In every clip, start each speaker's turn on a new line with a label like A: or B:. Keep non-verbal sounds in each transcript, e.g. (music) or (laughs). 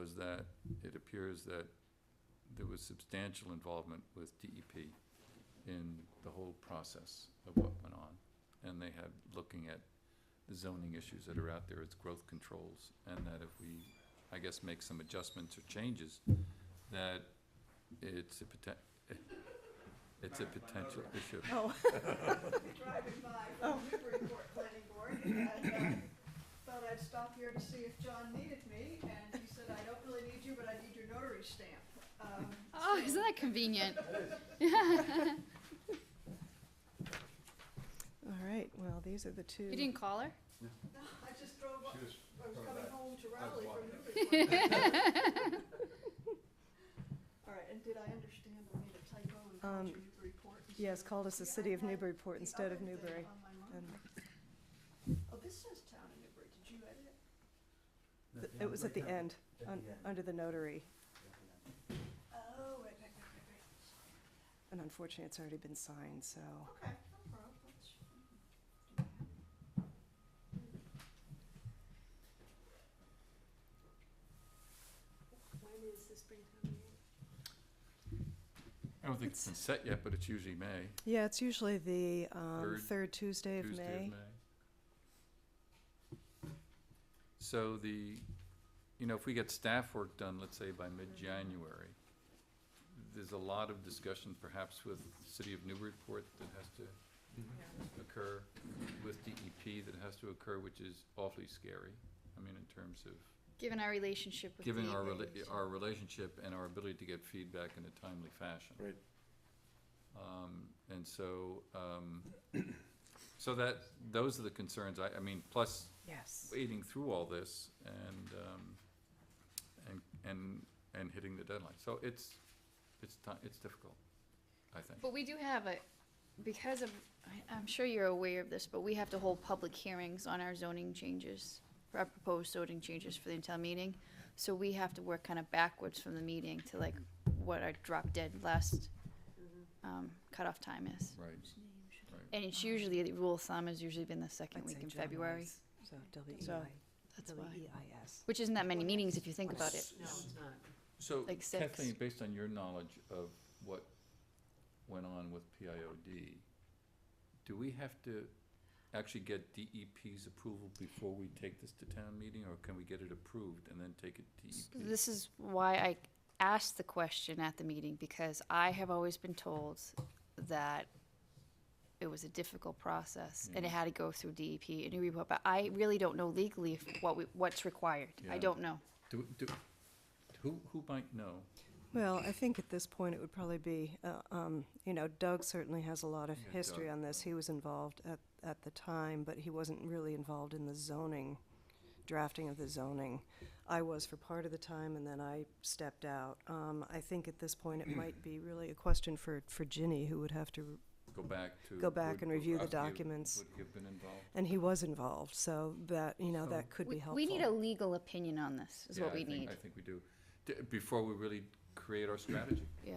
A: was that it appears that there was substantial involvement with DEP in the whole process of what went on. And they had, looking at the zoning issues that are out there, it's growth controls, and that if we, I guess, make some adjustments or changes, that it's a poten- it's a potential issue.
B: Oh,
C: driving by from Newburyport Planning Board, and uh, thought I'd stop here to see if John needed me, and he said, I don't really need you, but I need your notary stamp. Um,
D: Oh, (laughs)
C: so-
D: isn't that convenient?
B: all right, well, these are the two.
D: You didn't call her?
C: No, (laughs) I just drove up,
E: She was
C: I was
E: coming
C: coming
E: back.
C: home to
E: was
C: Raleigh from
E: walking (laughs)
C: Newburyport. All right, and did I understand I made a typo and
B: Um,
C: called you Newburyport? instead
B: Yes,
C: of-
B: called us the
C: Yeah, I
B: city of
C: had
B: Newburyport
C: the
B: instead of
C: other thing
B: Newbury.
C: on my mind.
B: and
C: Oh, this says town of Newbury, did you edit it?
B: th- It was at the end, un- under the notary,
C: Oh, right, right, right, right, right.
B: and unfortunately, it's already been signed, so.
C: Okay, no problem. That's-
A: I don't think it's been set yet, but it's usually May,
B: Yeah, it's usually the um,
A: Third
B: third Tuesday of
A: Tuesday of
B: May.
A: May. So the, you know, if we get staff work done, let's say by mid-January, there's a lot of discussion perhaps with the City of Newburyport that has to occur, with DEP that has to occur, which is awfully scary. I mean, in terms of
D: Given our relationship with
A: giving our,
D: David,
A: rela-
D: so-
A: our relationship and our ability to get feedback in a timely fashion.
E: Right.
A: Um, and so, um, so that, those are the concerns, I, I mean, plus
B: Yes.
A: wading through all this and, um, and, and, and hitting the deadline. So it's, it's ti- it's difficult, I think.
D: But we do have a, because of, I- I'm sure you're aware of this, but we have to hold public hearings on our zoning changes, our proposed zoning changes for the entire meeting. So we have to work kind of backwards from the meeting to like what our drop dead last um, cutoff time is.
A: Right,
D: And it's usually, the rule of thumb has usually been the second week in February,
B: So
D: So, that's why.
B: W-E-I-S.
D: which isn't that many meetings if you think about it.
F: No, it's not.
A: so
D: Like six.
A: Kathleen, based on your knowledge of what went on with PIOD, do we have to actually get DEP's approval before we take this to town meeting? Or can we get it approved and then take it to E DEP?
D: This is why I asked the question at the meeting, because I have always been told that it was a difficult process, and it
A: Mm-hmm.
D: had to go through DEP and Newburyport, but I really don't know legally if what we, what's required.
A: Yeah.
D: I don't know.
A: Do, do, who, who might know?
B: Well, I think at this point, it would probably be, uh, um, you know, Doug certainly has a lot of
A: Yeah,
B: history
A: Doug,
B: on this. He was involved at, at the time, but he wasn't really involved in the zoning, drafting of the zoning. I was for part of the time, and then I stepped out. Um, I think at this point, it might be really a question for, for Ginny, who would have to,
A: Go back to.
B: Go back
A: would-
B: and
A: would
B: review the
A: Rocky have-
B: documents.
A: Would he have been involved?
B: and he was involved, so that, you know, that could be
D: We,
B: helpful.
D: we need a legal opinion on this, is
A: Yeah,
D: what
A: I
D: we
A: think-
D: need,
A: I think we do, D- before we really create our strategy,
D: yeah.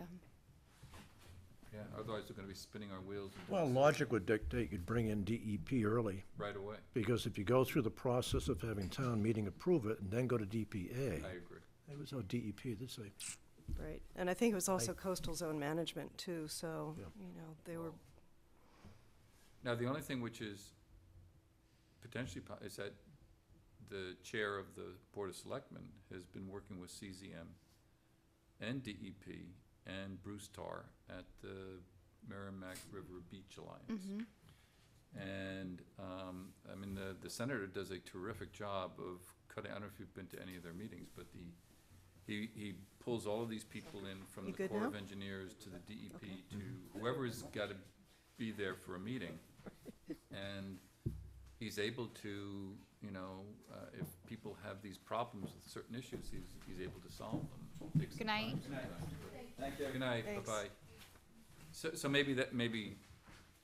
A: yeah, otherwise we're gonna be spinning our wheels and doing
G: Well,
A: this
G: logic would dictate you'd bring in DEP early,
A: right away,
G: because if you go through the process of having town meeting approve it and then go to DPA,
A: I agree.
G: it was no DEP, this say,
B: Right, and I think it was also coastal zone management too, so,
G: Yeah.
B: you know, they were,
A: Now, the only thing which is potentially, po- is that the chair of the Board of Selectmen has been working with CZM and DEP and Bruce Tar at the Merrimack River Beach Alliance.
B: Mm-hmm.
D: Mhm.
A: And, um, I mean, the, the senator does a terrific job of cutting, I don't know if you've been to any of their meetings, but the, he, he pulls all of these people in from
B: You
A: the
B: good
A: Corps
B: now?
A: of Engineers to the DEP
B: Okay.
A: to whoever's gotta be there for a meeting. And he's able to, you know, uh, if people have these problems with certain issues, he's, he's able to solve them. Takes some
D: Good night.
A: time
D: Good
A: sometimes, but-
E: Thank you.
A: Good night,
B: Thanks.
A: bye-bye. So, so maybe that, maybe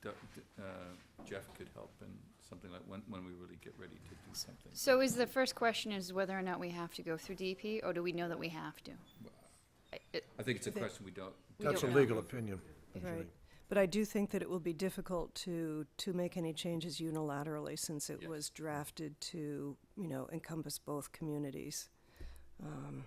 A: Du- D- uh, Jeff could help in something like when, when we really get ready to do something.
D: So is the first question is whether or not we have to go through DEP, or do we know that we have to? I- it-
A: I think it's a
B: They-
A: question we don't.
D: We don't
G: that's a
D: know.
G: legal opinion.
B: right.
G: usually.
B: But I do think that it will be difficult to, to make any changes unilaterally since it
A: Yes.
B: was drafted to, you know, encompass both communities. Um,